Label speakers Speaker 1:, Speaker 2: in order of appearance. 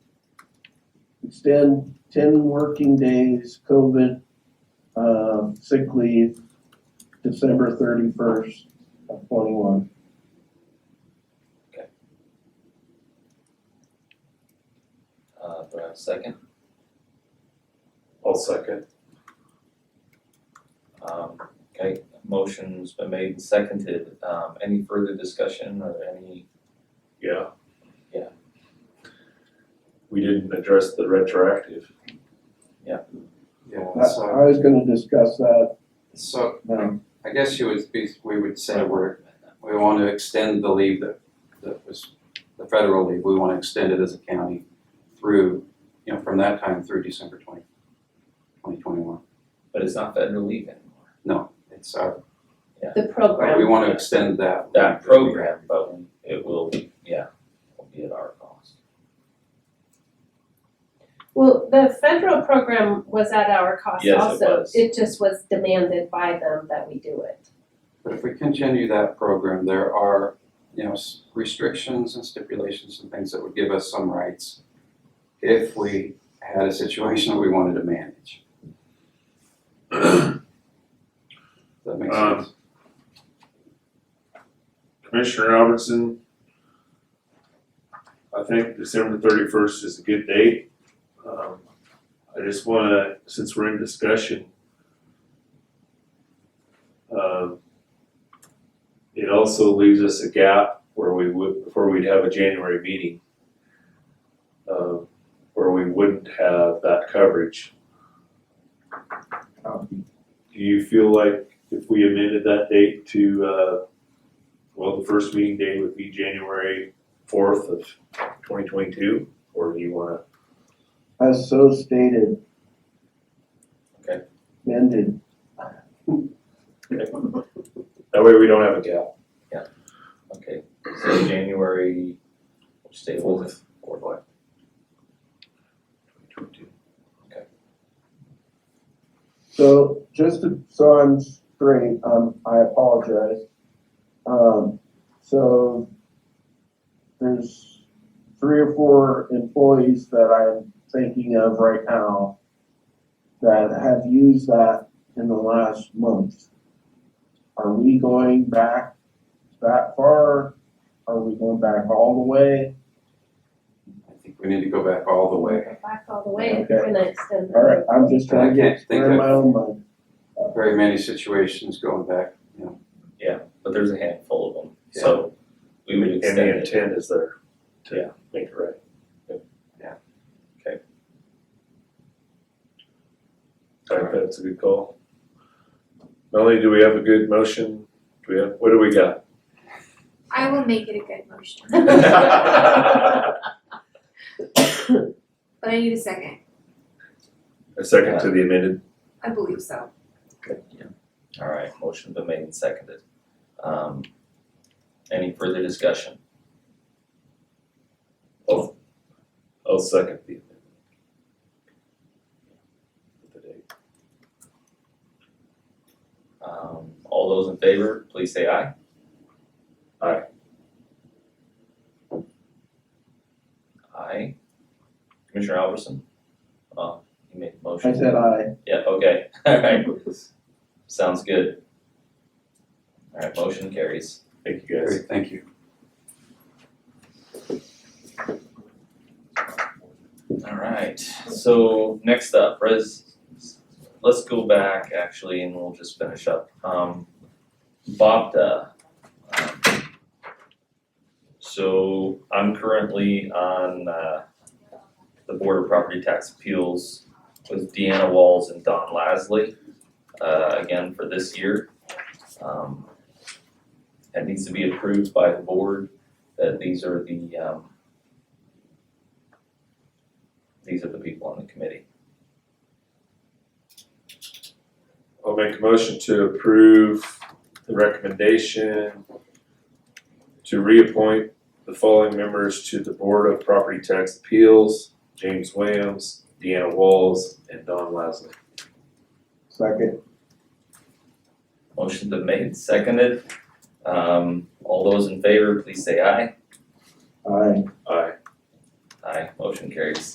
Speaker 1: extend ten working days COVID, uh, sick leave, December thirty-first of twenty-one.
Speaker 2: Uh, do I have a second?
Speaker 3: I'll second.
Speaker 2: Um, okay, motion's been made and seconded. Um, any further discussion or any,
Speaker 3: Yeah.
Speaker 2: Yeah.
Speaker 3: We didn't address the retroactive.
Speaker 4: Yeah,
Speaker 1: I,
Speaker 4: so,
Speaker 1: I was gonna discuss that,
Speaker 4: so
Speaker 1: um,
Speaker 4: I guess you would be, we would say we're, we want to extend the leave that, that was, the federal leave, we want to extend it as a county through, you know, from that time through December twenty, twenty twenty-one.
Speaker 2: but it's not federal leave anymore.
Speaker 4: No, it's our,
Speaker 5: The
Speaker 4: but we
Speaker 5: program,
Speaker 4: want to extend that.
Speaker 2: That program, but it will, be yeah, will be at our cost.
Speaker 5: well, the federal program was at our cost
Speaker 2: Yes, it
Speaker 5: also.
Speaker 2: was.
Speaker 5: It just was demanded by them that we do it.
Speaker 4: But if we continue that program, there are, you know, s- restrictions and stipulations and things that would give us some rights if we had a situation that we wanted to manage. Does that make
Speaker 3: Um,
Speaker 4: sense?
Speaker 3: Commissioner Albertson, I think December thirty-first is a good date. Um, I just wanna, since we're in discussion, um, it also leaves us a gap where we would, before we'd have a January meeting, um, where we wouldn't have that coverage. Do you feel like if we amended that date to, uh, well, the first meeting day would be January fourth of twenty twenty-two, or do you wanna?
Speaker 1: As so stated.
Speaker 2: Okay.
Speaker 1: Ended.
Speaker 3: That way we don't have a gap.
Speaker 2: Okay, so January, which day was it? Fourth.
Speaker 1: So just to, so I'm straight, um, I apologize. Um, so there's three or four employees that I'm thinking of right now that have used that in the last month. Are we going back that far? Are we going back all the way?
Speaker 4: I think we need to go back all the way.
Speaker 5: Go Back all the way, if we're gonna extend the.
Speaker 1: All right, I'm just trying to
Speaker 4: I can't
Speaker 1: get
Speaker 4: think
Speaker 1: clear in
Speaker 4: of-
Speaker 1: my own mind.
Speaker 4: Very many situations going back.
Speaker 2: But there's a handful of them, so we would
Speaker 3: And
Speaker 2: extend
Speaker 3: the
Speaker 2: it.
Speaker 3: intent is there
Speaker 2: Yeah.
Speaker 3: to make it right.
Speaker 4: Yeah.
Speaker 2: Okay.
Speaker 3: I think that's a good call. Not only do we have a good motion, do we have, what do we got?
Speaker 6: I will make it a good motion,
Speaker 3: A
Speaker 6: but I need a second.
Speaker 3: second to the amended,
Speaker 6: I believe so.
Speaker 2: All right, motion been made and seconded. Um, any further discussion? Oh,
Speaker 3: I'll, I'll second the amendment. With the date.
Speaker 2: Um, all those in favor, please say aye.
Speaker 3: Aye.
Speaker 2: Aye. Commissioner Albertson? Uh, you made the motion.
Speaker 1: I said aye.
Speaker 2: Yeah, okay, alright, sounds good. Alright, motion carries.
Speaker 3: Thank you guys.
Speaker 4: Great, thank you.
Speaker 2: Alright, so next up, res, let's go back actually and we'll just finish up. Um, Bobda. Um, So I'm currently on, uh, the Board of Property Tax Appeals with Deanna Walls and Don Lasley, uh, again for this year. Um, That needs to be approved by the board, that these are the, um, these are the people on the committee.
Speaker 3: I'll make a motion to approve the recommendation to reappoint the following members to the Board of Property Tax Appeals, James Williams, Deanna Walls, and Don Lasley.
Speaker 1: Second.
Speaker 2: Motion's been made, seconded. Um, all those in favor, please say aye.
Speaker 1: Aye.
Speaker 3: Aye.
Speaker 2: Aye, motion carries.